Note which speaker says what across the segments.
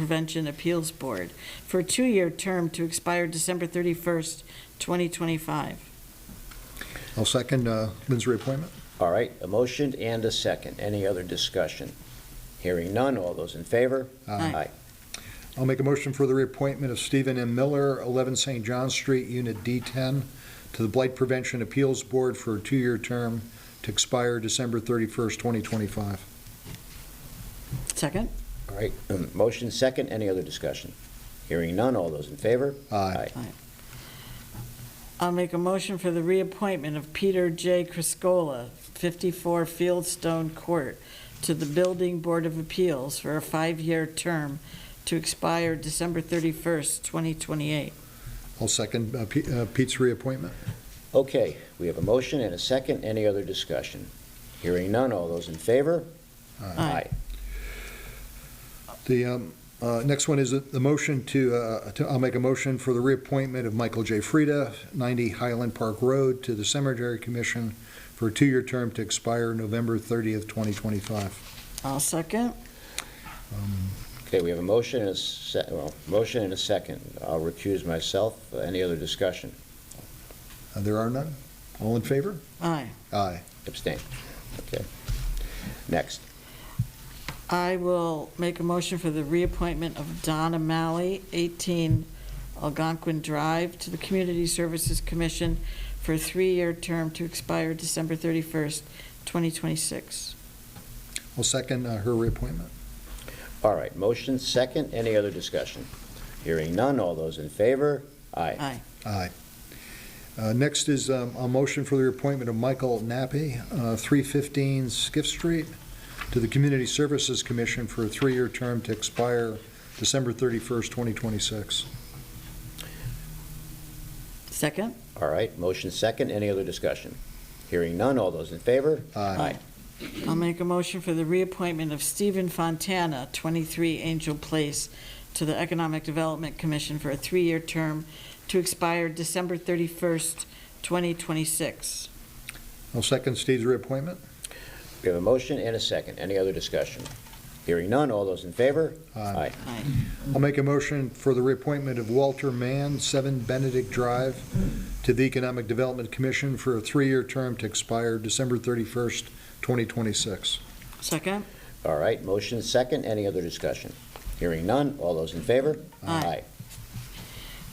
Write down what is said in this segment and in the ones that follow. Speaker 1: Prevention Appeals Board for a two-year term to expire December 31st, 2025.
Speaker 2: I'll second uh, Lynn's reappointment.
Speaker 3: All right, a motion and a second. Any other discussion? Hearing none, all those in favor?
Speaker 1: Aye.
Speaker 2: I'll make a motion for the reappointment of Stephen M. Miller, 11 St. John Street, Unit D10, to the Blight Prevention Appeals Board for a two-year term to expire December 31st, 2025.
Speaker 1: Second?
Speaker 3: All right, um, motion second, any other discussion? Hearing none, all those in favor?
Speaker 2: Aye.
Speaker 1: I'll make a motion for the reappointment of Peter J. Criscola, 54 Fieldstone Court, to the Building Board of Appeals for a five-year term to expire December 31st, 2028.
Speaker 2: I'll second uh, P- uh, Pete's reappointment.
Speaker 3: Okay, we have a motion and a second, any other discussion? Hearing none, all those in favor?
Speaker 1: Aye.
Speaker 2: The um, uh, next one is the motion to, uh, to- I'll make a motion for the reappointment of Michael J. Frieda, 90 Highland Park Road, to the Cemetery Commission for a two-year term to expire November 30th, 2025.
Speaker 1: I'll second.
Speaker 2: Um,
Speaker 3: Okay, we have a motion and a se, well, motion and a second. I'll recuse myself. Any other discussion?
Speaker 2: Uh, There are none? All in favor?
Speaker 1: Aye.
Speaker 2: Aye.
Speaker 3: Abstain. Okay. Next.
Speaker 1: I will make a motion for the reappointment of Donna Malley, 18 Algonquin Drive, to the Community Services Commission for a three-year term to expire December 31st, 2026.
Speaker 2: I'll second uh, her reappointment.
Speaker 3: All right, motion second. Any other discussion? Hearing none. All those in favor? Aye.
Speaker 1: Aye.
Speaker 2: Aye. Uh, Next is um, a motion for the appointment of Michael Nappi, uh, 315 Skiff Street, to the Community Services Commission for a three-year term to expire December 31st, 2026.
Speaker 1: Second?
Speaker 3: All right, motion second. Any other discussion? Hearing none. All those in favor?
Speaker 2: Aye.
Speaker 1: I'll make a motion for the reappointment of Stephen Fontana, 23 Angel Place, to the Economic Development Commission for a three-year term to expire December 31st, 2026.
Speaker 2: I'll second Steve's reappointment.
Speaker 3: We have a motion and a second. Any other discussion? Hearing none. All those in favor? Aye.
Speaker 1: Aye.
Speaker 2: I'll make a motion for the reappointment of Walter Mann, 7 Benedict Drive, to the Economic Development Commission for a three-year term to expire December 31st, 2026.
Speaker 1: Second?
Speaker 3: All right, motion second. Any other discussion? Hearing none. All those in favor?
Speaker 1: Aye.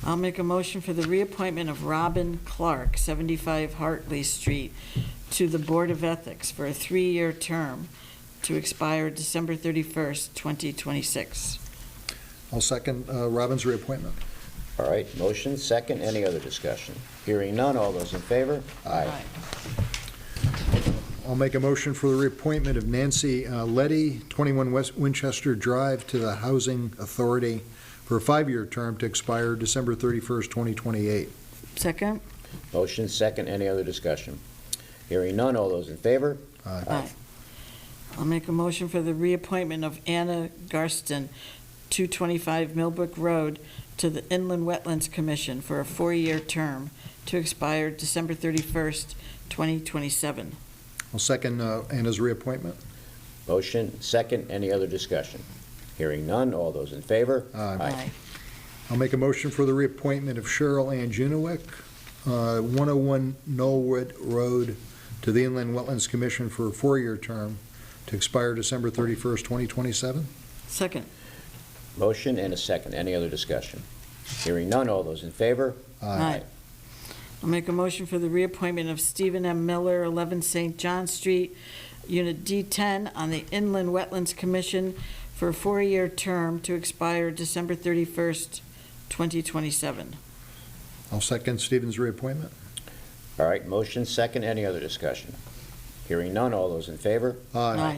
Speaker 1: I'll make a motion for the reappointment of Robin Clark, 75 Hartley Street, to the Board of Ethics for a three-year term to expire December 31st, 2026.
Speaker 2: I'll second uh, Robin's reappointment.
Speaker 3: All right, motion second. Any other discussion? Hearing none. All those in favor?
Speaker 1: Aye.
Speaker 2: I'll make a motion for the reappointment of Nancy uh, Letty, 21 West Winchester Drive, to the Housing Authority for a five-year term to expire December 31st, 2028.
Speaker 1: Second?
Speaker 3: Motion second. Any other discussion? Hearing none. All those in favor?
Speaker 2: Uh,
Speaker 1: Aye. I'll make a motion for the reappointment of Anna Garston, 225 Millbrook Road, to the Inland Wetlands Commission for a four-year term to expire December 31st, 2027.
Speaker 2: I'll second uh, Anna's reappointment.
Speaker 3: Motion second. Any other discussion? Hearing none. All those in favor?
Speaker 2: Aye. Uh, I'll make a motion for the reappointment of Cheryl Ann Junewick, uh, 101 Knollwood Road, to the Inland Wetlands Commission for a four-year term to expire December 31st, 2027.
Speaker 1: Second?
Speaker 3: Motion and a second. Any other discussion? Hearing none. All those in favor?
Speaker 2: Uh,
Speaker 1: Aye. I'll make a motion for the reappointment of Stephen M. Miller, 11 St. John Street, Unit D10, on the Inland Wetlands Commission for a four-year term to expire December 31st, 2027.
Speaker 2: I'll second Stephen's reappointment.
Speaker 3: All right, motion second. Any other discussion? Hearing none. All those in favor?
Speaker 2: Uh,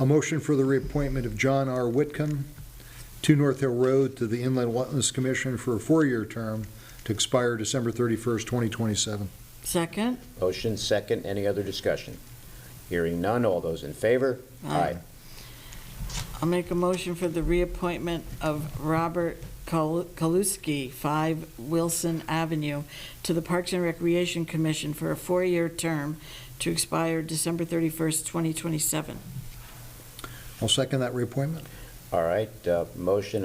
Speaker 2: A motion for the reappointment of John R. Whitcomb, 2 North Hill Road, to the Inland Wetlands Commission for a four-year term to expire December 31st, 2027.
Speaker 1: Second?
Speaker 3: Motion second. Any other discussion? Hearing none. All those in favor?
Speaker 1: I'll make a motion for the reappointment of Robert Kal- Kaluski, 5 Wilson Avenue, to the Parks and Recreation Commission for a four-year term to expire December 31st, 2027.
Speaker 2: I'll second that reappointment.
Speaker 3: All right, uh, motion